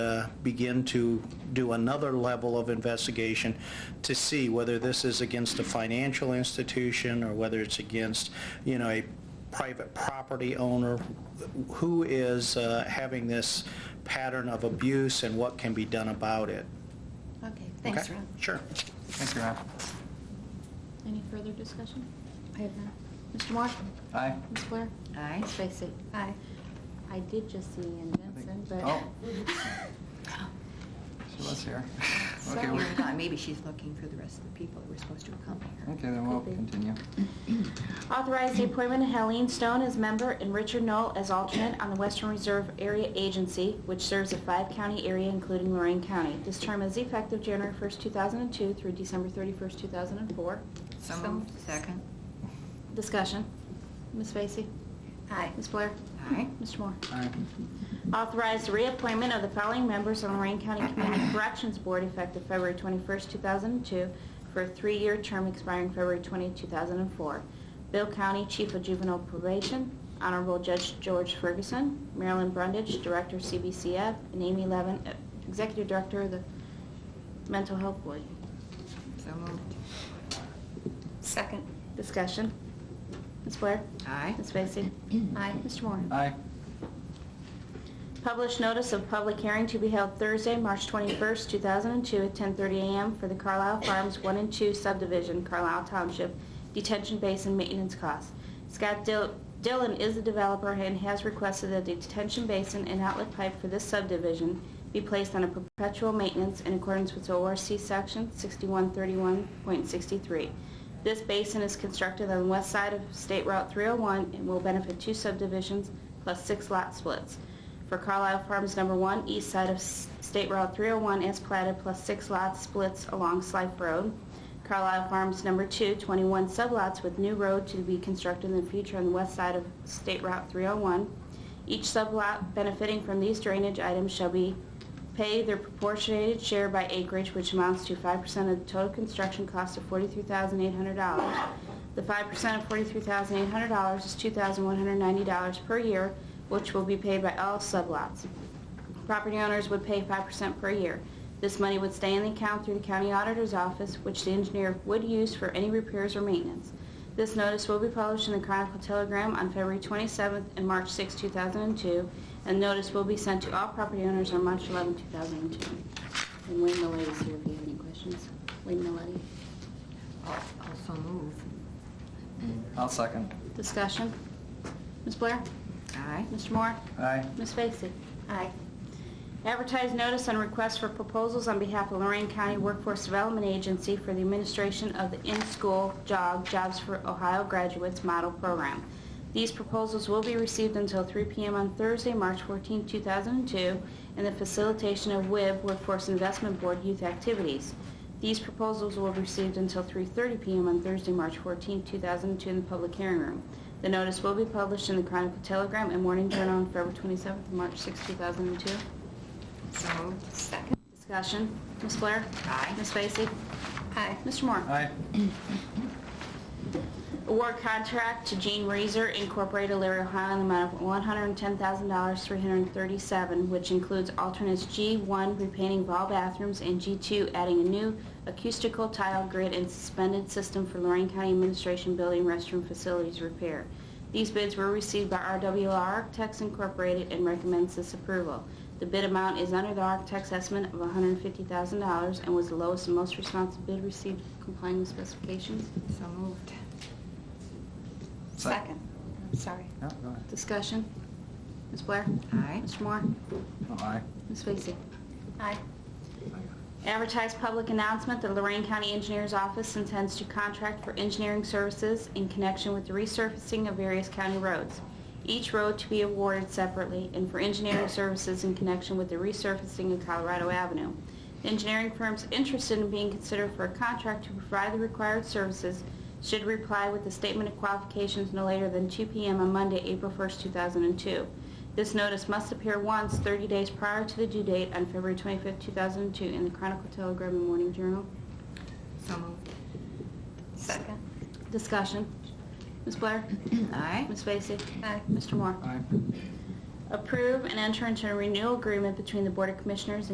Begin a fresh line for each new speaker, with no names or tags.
uh, begin to do another level of investigation to see whether this is against a financial institution or whether it's against, you know, a private property owner who is uh, having this pattern of abuse and what can be done about it.
Okay, thanks,
Okay?
Rob.
Sure.
Thank you, Rob.
Any further discussion?
I have none.
Mr. Moore?
Aye.
Ms. Blair?
Aye.
Ms. Vacy?
Aye.
I did just see Ann Benson, but...
Oh. She was here. Okay,
Sorry.
we-
Hold on, Maybe she's looking for the rest of the people that were supposed to accompany her.
Okay, then we'll
Could be.
continue.
Authorize the appointment of Helene Stone as member and Richard Knoll as alternate on the Western Reserve Area Agency, which serves a five-county area including Lorraine County. This term is effective January 1st, 2002 through December 31st, 2004.
So
So-
moved. Second.
Discussion. Ms. Vacy?
Aye.
Ms. Blair?
Aye.
Mr. Moore?
Aye.
Authorize the reappointment of the following members on Lorraine County Community Corrections Board effective February 21st, 2002, for a three-year term expiring February 20, 2004. Bill County Chief of Juvenile Probation, Honorable Judge George Ferguson, Marilyn Brundage, Director CBCF, and Amy Levin, uh, Executive Director of the Mental Health Board.
So moved.
Second.
Discussion. Ms. Blair?
Aye.
Ms. Vacy?
Aye.
Mr. Moore?
Aye.
Published notice of public hearing to be held Thursday, March 21st, 2002, at 10:30 a.m. for the Carlisle Farms 1 and 2 subdivision, Carlisle Township, detention base and maintenance costs. Scott Dil- Dillon is the developer and has requested that the detention basin and outlet pipe for this subdivision be placed on a perpetual maintenance in accordance with ORC Section 6131.63. This basin is constructed on the west side of State Route 301 and will benefit two subdivisions plus six lot splits for Carlisle Farms Number One, east side of S- State Route 301 as platted, plus six lots splits along Slife Road. Carlisle Farms Number Two, 21 sublots with new road to be constructed in the future on the west side of State Route 301. Each sublot benefiting from these drainage items shall be paid their proportionated share by acreage, which amounts to 5% of the total construction cost of $43,800. The 5% of $43,800 is $2,190 per year, which will be paid by all sublots. Property owners would pay 5% per year. This money would stay in the account through the county auditor's office, which the engineer would use for any repairs or maintenance. This notice will be published in the Chronicle Telegram on February 27th and March 6, 2002, and notice will be sent to all property owners on March 11, 2002. And Wayne Milady is here if you have any questions. Wayne Milady.
Al- Also move.
I'll second.
Discussion. Ms. Blair?
Aye.
Mr. Moore?
Aye.
Ms. Vacy?
Aye.
Advertise notice and request for proposals on behalf of Lorraine County Workforce Development Agency for the administration of the in-school job, Jobs for Ohio Graduates Model Program. These proposals will be received until 3 p.m. on Thursday, March 14, 2002, in the facilitation of WIB, Workforce Investment Board Youth Activities. These proposals will be received until 3:30 p.m. on Thursday, March 14, 2002, in the public hearing room. The notice will be published in the Chronicle Telegram and Morning Journal on February 27th and March 6, 2002.
So moved.
Second.
Discussion. Ms. Blair?
Aye.
Ms. Vacy?
Aye.
Mr. Moore?
Aye.
Award contract to Gene Reeser Incorporated, Larry, Ohio, in the amount of $110,337, which includes alternates G1 repainting of all bathrooms and G2 adding a new acoustical tile grid and suspended system for Lorraine County Administration Building restroom facilities repair. These bids were received by RWL Architects Incorporated and recommends this approval. The bid amount is under the architect's estimate of $150,000 and was the lowest and most responsive bid received complying with specifications.
So moved.
Sec-
Second. I'm sorry.
Yeah, go ahead.
Discussion. Ms. Blair?
Aye.
Mr. Moore?
Oh, Aye.
Ms. Vacy?
Aye.
Advertise public announcement that Lorraine County Engineers Office intends to contract for engineering services in connection with the resurfacing of various county roads. Each road to be awarded separately and for engineering services in connection with the resurfacing of Colorado Avenue. The Engineering firms interested in being considered for a contract to provide the required services should reply with a statement of qualifications no later than 2 p.m. on Monday, April 1st, 2002. This notice must appear once 30 days prior to the due date on February 25, 2002, in the Chronicle Telegram and Morning Journal.
So moved.
Second.
Discussion. Ms. Blair?
Aye.
Ms. Vacy?
Aye.
Mr. Moore?
Aye.
Approve and enter into a renewal agreement between the Board of Commissioners and